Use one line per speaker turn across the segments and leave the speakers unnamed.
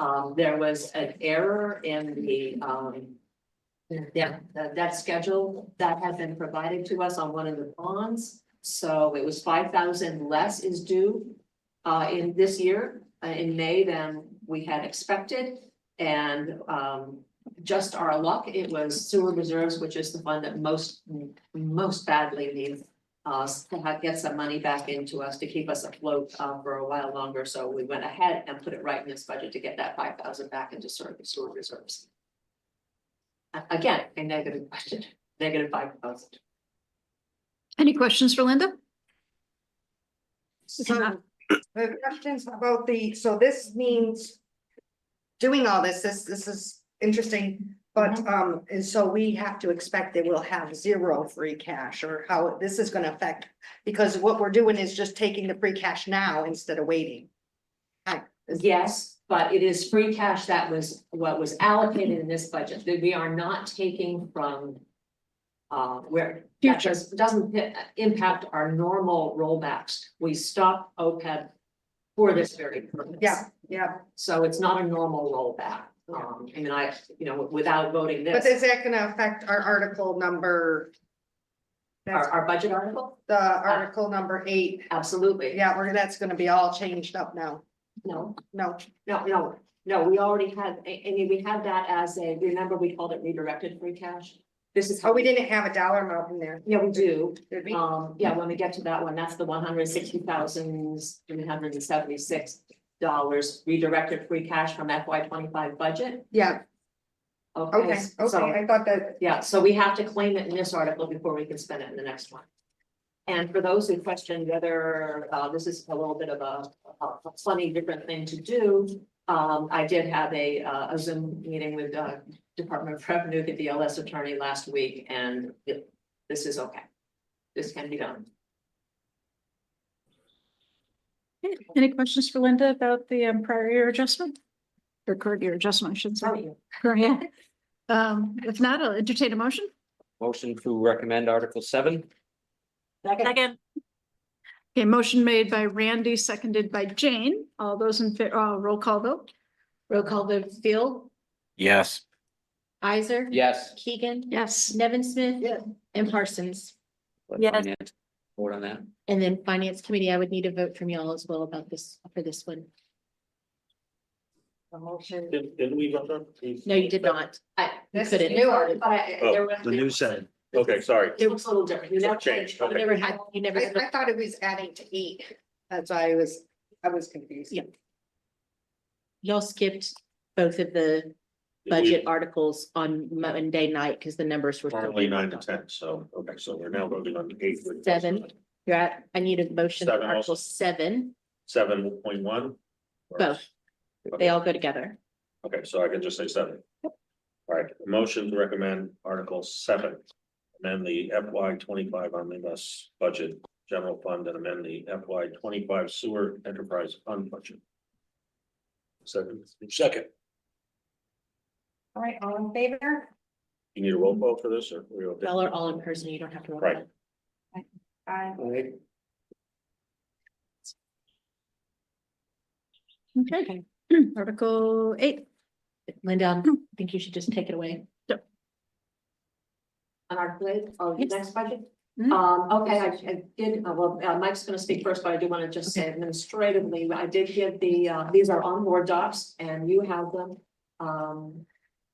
Um, there was an error in the, um. Yeah, that, that schedule that had been provided to us on one of the bonds, so it was five thousand less is due. Uh, in this year, uh, in May than we had expected, and, um, just our luck, it was sewer reserves, which is the fund that most, most badly needs. Us to have, get some money back into us to keep us afloat, uh, for a while longer, so we went ahead and put it right in this budget to get that five thousand back into sewer, sewer reserves. A- Again, a negative budget, negative five thousand.
Any questions for Linda?
So, the questions about the, so this means. Doing all this, this, this is interesting, but,
Mm-hmm.
um, and so we have to expect that we'll have zero free cash or how this is gonna affect. Because what we're doing is just taking the free cash now instead of waiting.
Yes, but it is free cash that was what was allocated in this budget, that we are not taking from. Uh, where. that
Future.
does- Doesn't i- impact our normal rollbacks, we stop OPEB for this very purpose.
Yeah, yeah,
So it's not a normal rollback, um, I mean, I, you know, without voting
but
this,
is that gonna affect our article number?
our,
That's
our budget article,
the article number eight,
absolutely.
yeah, we're, that's gonna be all changed up now,
No,
no,
no, no, no, we already had, I, I mean, we had that as a, remember, we called it redirected free cash? This is
oh,
how
we
we,
didn't have a dollar amount in there,
yeah, we do,
did we?
Um, yeah, when we get to that one, that's the one hundred sixty thousand, three hundred and seventy-six dollars redirected free cash from FY twenty-five budget.
Yeah,
Okay,
Okay, okay,
so,
I thought that,
yeah, so we have to claim it in this article before we can spend it in the next one. And for those who question whether, uh, this is a little bit of a, a funny different thing to do. Um, I did have a, uh, a Zoom meeting with, uh, Department of Revenue, the DLS attorney last week, and it- this is okay. This can be done.
Okay, Any questions for Linda about the um, prior year adjustment? Or current year adjustment, I should
Oh,
say. Current, yeah. Um, if not, I'll entertain a motion.
Motion to recommend Article seven?
Second,
Okay, motion made by Randy, seconded by Jane. All those in, fa- uh, roll call vote.
Roll call vote, Phil,
Yes.
Isaac.
Yes.
Keegan.
Yes.
Nevin Smith.
Yeah.
And Parsons.
Let
Yes.
finance Vote on that.
And then Finance Committee, I would need a vote from y'all as well about this, for this one.
Did, did we vote on?
No, you did not.
I,
This
But
is new article.
I-
Oh,
there was-
The new seven.
Okay, sorry.
It looks a little different. You
So
never
changed,
changed.
You
okay.
never had, you never.
I, I thought it was adding to eight, that's why I was, I was confused.
Yeah. Y'all skipped both of the
We-
budget articles on Monday night because the numbers were.
Currently nine to ten, so, okay, so we're now voting on eight. which is
Seven. You're at, I need a motion for
Seven also.
Article seven.
Seven point one?
Both. They all go together.
Okay, so I can just say seven. All right, motion to recommend Article seven. Amend the FY twenty-five omnibus budget general fund and amend the FY twenty-five sewer enterprise fund budget. Second. Second.
All right, all in favor?
You need a roll call for this or? we okay?
Y'all are all in person. You don't have to. roll
Right.
call.
Aye.
Okay. Article eight.
Linda, I think you should just take it away.
On our plate, oh, the
Yes. Mm-hmm.
next budget?
Mhm.
Um, okay, I I did, uh, well, uh, Mike's gonna speak first, but I do wanna just say administratively, I did give the, uh, these are on board docs and you have them. Um,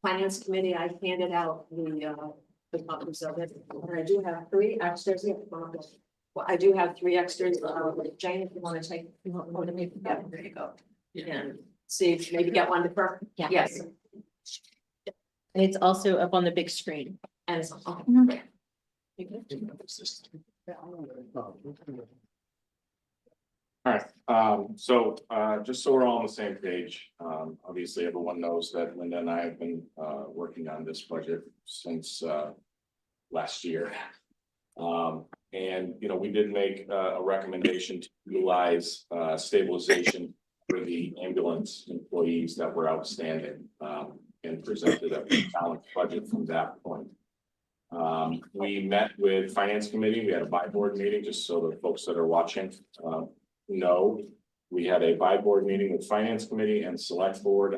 finance committee, I handed out the, uh, the copies of it, and I do have three extras. yeah, one of those. Well, I do have three extras, uh, Jane, if you wanna take,
You want one of me?
yeah, there you go. And see if maybe get one to her,
Yeah.
yes,
And it's also up on the big screen.
and it's, oh,
Mhm.
great.
All right, um, so, uh, just so we're all on the same page, um, obviously everyone knows that Linda and I have been, uh, working on this budget since, uh, last year. Um, and, you know, we did make uh, a recommendation to utilize, uh, stabilization for the ambulance employees that were outstanding, um, and presented a balanced budget from that point. Um, we met with finance committee, we had a by board meeting, just so the folks that are watching, uh, um, no, we had a by board meeting with finance committee and select board